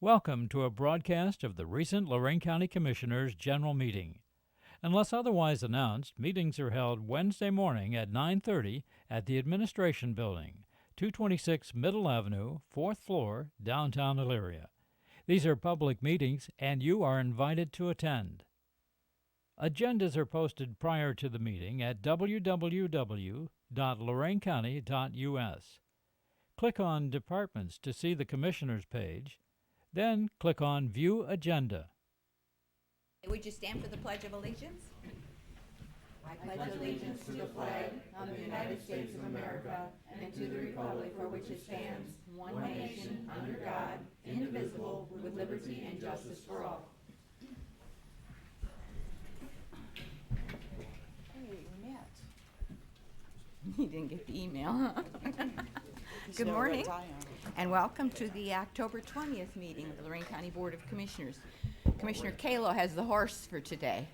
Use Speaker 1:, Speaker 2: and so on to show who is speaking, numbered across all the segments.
Speaker 1: Welcome to a broadcast of the recent Lorraine County Commissioners' General Meeting. Unless otherwise announced, meetings are held Wednesday morning at 9:30 at the Administration Building, 226 Middle Avenue, 4th floor, downtown Elyria. These are public meetings and you are invited to attend. Agendas are posted prior to the meeting at www.loraincounty.us. Click on Departments to see the Commissioners page, then click on View Agenda.
Speaker 2: Would you stand for the Pledge of Allegiance? Hey, we met. You didn't get the email, huh? Good morning, and welcome to the October 20th meeting of the Lorraine County Board of Commissioners. Commissioner Kalo has the horse for today.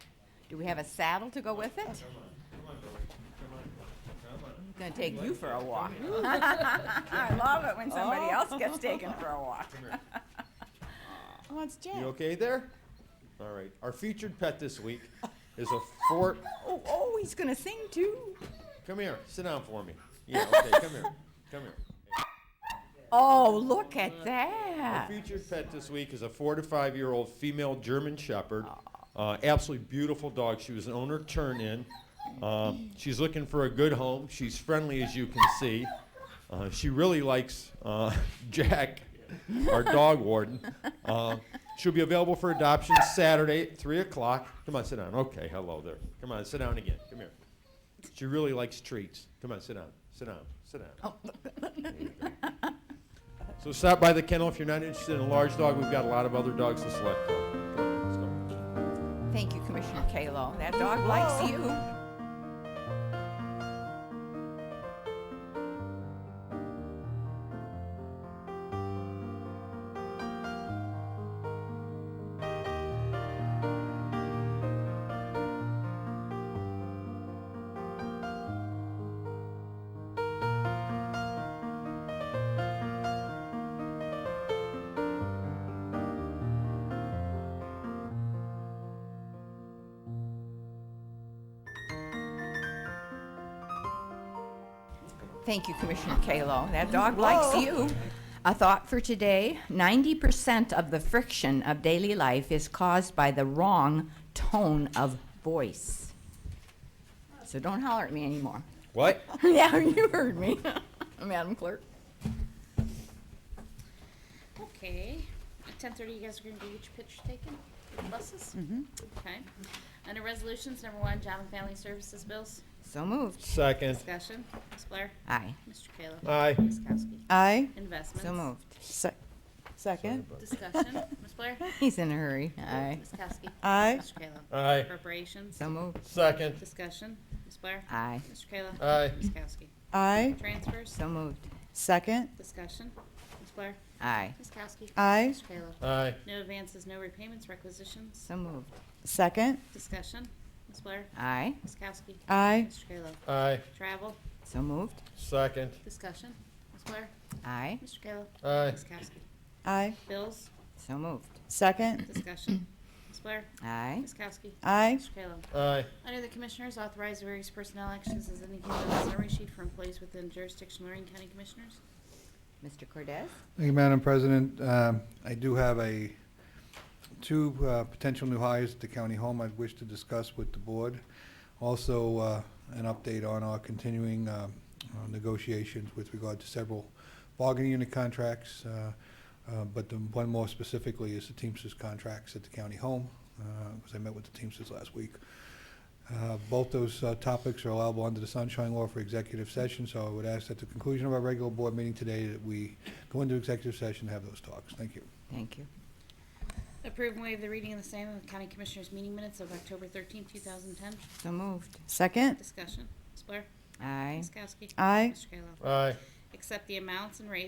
Speaker 2: Do we have a saddle to go with it? I'm gonna take you for a walk. I love it when somebody else gets taken for a walk.
Speaker 3: Oh, it's Jack.
Speaker 4: You okay there? All right. Our featured pet this week is a fort.
Speaker 2: Oh, oh, he's gonna sing too.
Speaker 4: Come here. Sit down for me. Yeah. Okay. Come here. Come here.
Speaker 2: Oh, look at
Speaker 4: Our
Speaker 2: that.
Speaker 4: featured pet this week is a four to five year old female German Shepherd. Uh, absolutely beautiful dog. She was an owner turn in. Uh, she's looking for a good home. She's friendly, as you can see. Uh, she really likes uh, Jack, our dog warden. Uh, she'll be available for adoption Saturday at 3 o'clock. Come on, sit down. Okay, hello there. Come on, sit down again. Come here. She really likes treats. Come on, sit down. Sit down. Sit down. So stop by the kennel if you're not interested in a large dog. We've got a lot of other dogs to select from.
Speaker 2: Thank you, Commissioner Kalo. That dog likes you. Thank you, Commissioner Kalo. That dog likes you. A thought for today 90% of the friction of daily life is caused by the wrong tone of voice. So don't holler at me anymore.
Speaker 4: What?
Speaker 2: yeah, you heard me, Madam Clerk.
Speaker 5: Okay, at ten thirty, you guys are gonna do which pitch taken, With buses? Mm-hmm. Okay, under resolutions, number one, job and family services bills,
Speaker 2: So moved.
Speaker 4: Second.
Speaker 5: discussion, Ms. Blair,
Speaker 2: Aye.
Speaker 5: Mr. Kayla.
Speaker 4: Aye.
Speaker 5: Ms. Kowski,
Speaker 3: I
Speaker 5: investments.
Speaker 2: So moved.
Speaker 3: Se- second.
Speaker 5: Discussion, Ms. Blair,
Speaker 2: He's in a hurry. Aye.
Speaker 5: Ms. Kowski,
Speaker 3: I
Speaker 5: Mr. Kayla.
Speaker 4: Aye.
Speaker 5: Appropriations,
Speaker 2: So moved.
Speaker 4: Second.
Speaker 5: discussion, Ms. Blair,
Speaker 2: Aye.
Speaker 5: Mr. Kayla.
Speaker 4: Aye.
Speaker 5: Ms. Kowski,
Speaker 3: I
Speaker 5: transfers,
Speaker 2: So moved.
Speaker 3: second.
Speaker 5: discussion, Ms. Blair,
Speaker 2: Aye.
Speaker 5: Ms. Kowski.
Speaker 3: I
Speaker 5: Mr. Kayla.
Speaker 4: Aye.
Speaker 5: No advances, no repayments, requisitions,
Speaker 2: So moved.
Speaker 3: second.
Speaker 5: discussion, Ms. Blair,
Speaker 2: Aye.
Speaker 5: Ms. Kowski,
Speaker 3: I
Speaker 5: Mr. Kayla.
Speaker 4: Aye.
Speaker 5: Travel,
Speaker 2: So moved.
Speaker 4: Second.
Speaker 5: discussion, Ms. Blair,
Speaker 2: Aye.
Speaker 5: Mr. Kayla,
Speaker 4: Aye.
Speaker 5: Ms. Kowski.
Speaker 3: I
Speaker 5: Bills,
Speaker 2: So moved.
Speaker 3: second.
Speaker 5: discussion, Ms. Blair,
Speaker 2: Aye.
Speaker 5: Ms. Kowski,
Speaker 3: I
Speaker 5: Mr. Kayla.
Speaker 4: Aye.
Speaker 5: Under the Commissioners, authorize various personnel actions as indicated on the summary sheet for employees within jurisdiction Lorraine County Commissioners.
Speaker 2: Mr. Cordez?
Speaker 6: Thank you, Madam President. Um, I do have a, two uh, potential new hires at the county home I'd wish to discuss with the board. Also, uh, an update on our continuing um, uh, negotiations with regard to several bargaining unit contracts. uh, uh, But the one more specifically is the Teamsters contracts at the county home, because I met with the Teamsters last week. Uh, Both those uh, topics are allowable under the sunshine law for executive session, so I would ask at the conclusion of our regular board meeting today that we go into executive session and have those talks. Thank you.
Speaker 2: Thank you.
Speaker 5: Approve and waive the reading of the same of the County Commissioners meeting minutes of October thirteenth, two thousand ten.
Speaker 2: So moved.
Speaker 3: second.
Speaker 5: Discussion, Ms. Blair,
Speaker 2: Aye.
Speaker 5: Ms. Kowski.
Speaker 3: I
Speaker 5: Mr. Kayla.
Speaker 4: Aye.
Speaker 5: Accept the amounts and rates